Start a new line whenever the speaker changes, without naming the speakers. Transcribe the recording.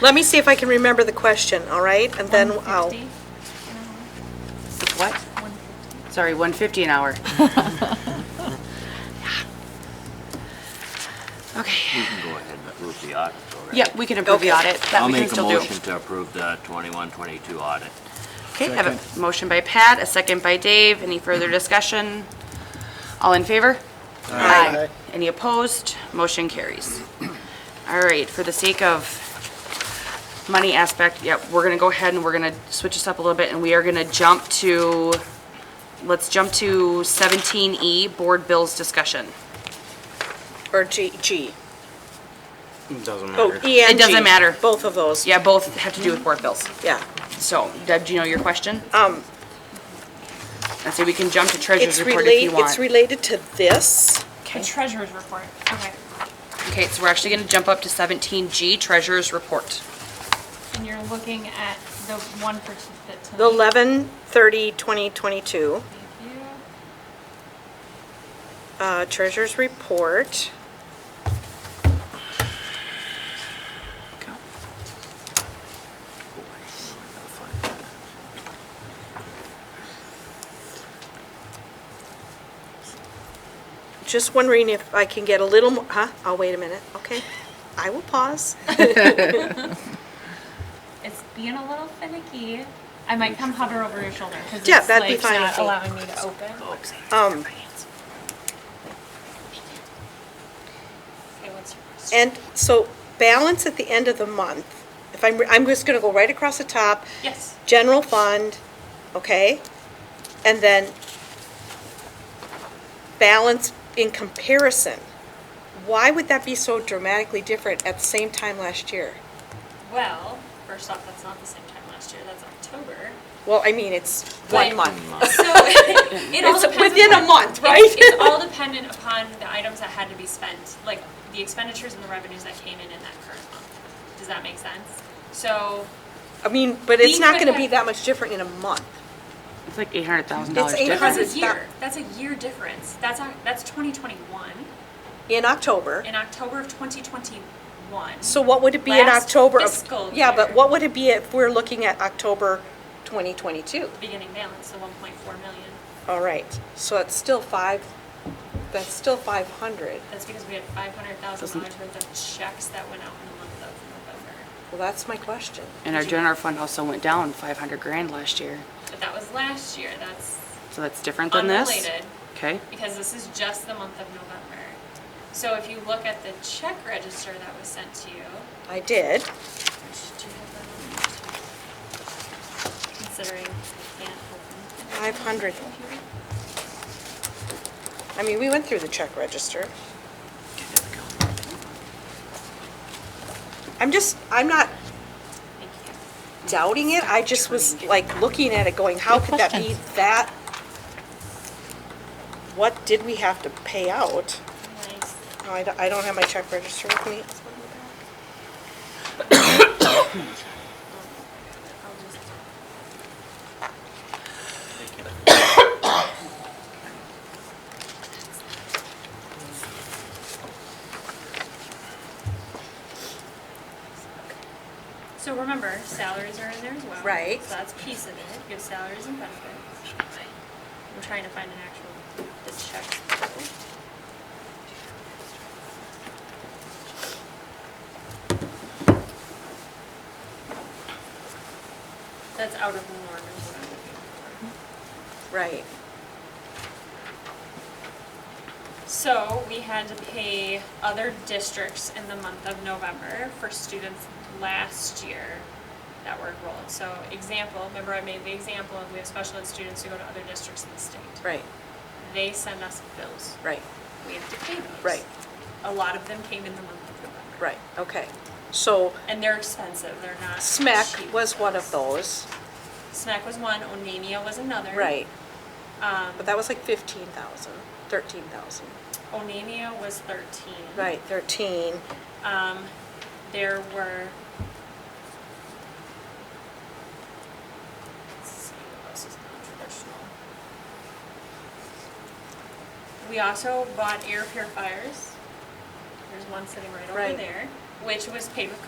Let me see if I can remember the question, all right? And then I'll,
150?
What? Sorry, 150 an hour. Okay.
We can go ahead and approve the audit, all right?
Yeah, we can approve the
Okay.
audit. That we can still
I'll
do.
make a motion to approve the 21, 22 audit.
Okay, I have a motion by Pat, a second by Dave. Any further discussion? All in favor? Aye. Any opposed? Motion carries. All right, for the sake of money aspect, yep, we're gonna go ahead and we're gonna switch this up a little bit and we are gonna jump to, let's jump to seventeen E, board bills discussion.
or G, G.
Doesn't
Oh,
matter.
E and
It doesn't
G,
matter.
Both of those,
Yeah, both have to do with board bills.
yeah.
So, Deb, do you know your question? Um. I say we can jump to treasurer's
It's
report if you
related,
want.
it's related to this.
The treasurer's report, okay.
Okay, so we're actually gonna jump up to seventeen G, Treasurer's Report.
And you're looking at the one for, t- that tonight.
The 11, 30, 2022,
Thank you.
uh, treasurer's report. Just wondering if I can get a little, mo- huh? Oh, wait a minute, okay. I will pause.
It's being a little finicky. I might come hover over your shoulder because
Yeah,
it's
that'd be
like
fine, I
not
think.
allowing me to open.
Um,
Okay, what's your question?
And so balance at the end of the month, if I'm, I'm just gonna go right across the top,
Yes.
general fund, okay? And then balance in comparison. Why would that be so dramatically different at the same time last year?
Well, first off, that's not the same time last year. That's October.
Well, I mean, it's one
But-
month.
Mm, uh,
So it all
It's
depends
within a
upon-
month,
it's-
right?
It's all dependent upon the items that had to be spent, like the expenditures and the revenues that came in in that current month. Does that make sense? So
I mean, but it's
We
not
could
gonna be
have-
that much different in a month.
It's like eight hundred thousand
It's
dollars
$800,000.
difference.
that's a
Because it's not-
year. That's a year difference. That's on, that's 2021.
In October,
In October of 2021.
so what would it be in
Last
October of?
fiscal
Yeah, but
year.
what would it be if we're looking at October 2022?
Beginning balance, the 1.4 million.
All right, so it's still five, that's still 500.
That's because we had $500,000
Doesn't-
worth of checks that went out in the month of November.
Well, that's my question.
And our general fund also went down five hundred grand last year,
But that was last year. That's
so that's different than this?
unrelated
Okay,
because this is just the month of November. So if you look at the check register that was sent to you,
I did.
which do you have that on? Considering I can't open.
500. I mean, we went through the check register. I'm just, I'm not
Thank you.
doubting it, I just was like looking at it going, how could that be that? What did we have to pay out?
Nice.
No, I don't, I don't have my check register with me.
This one in the back. I'll just- So remember, salaries are in there as well.
Right.
So that's a piece of it, you have salaries and benefits. I'm trying to find an actual, this check. That's out of the norm is what I'm looking for.
Right.
So we had to pay other districts in the month of November for students last year that were enrolled. So example, remember I made the example of we have special ed students who go to other districts in the state.
Right,
They send us bills.
right,
We have to pay those.
Right.
A lot of them came in the month of November.
right, okay. So
And they're expensive, they're not
SMEC
cheap
was one of
bills.
those,
SMAC was one, Onamia was another.
right,
Um,
but that was like fifteen thousand, thirteen thousand.
Onamia was thirteen.
Right, thirteen,
Um, there were. Let's see, what else is non-traditional? We also bought air purifiers. There's one sitting right over
Right.
there, which was paid with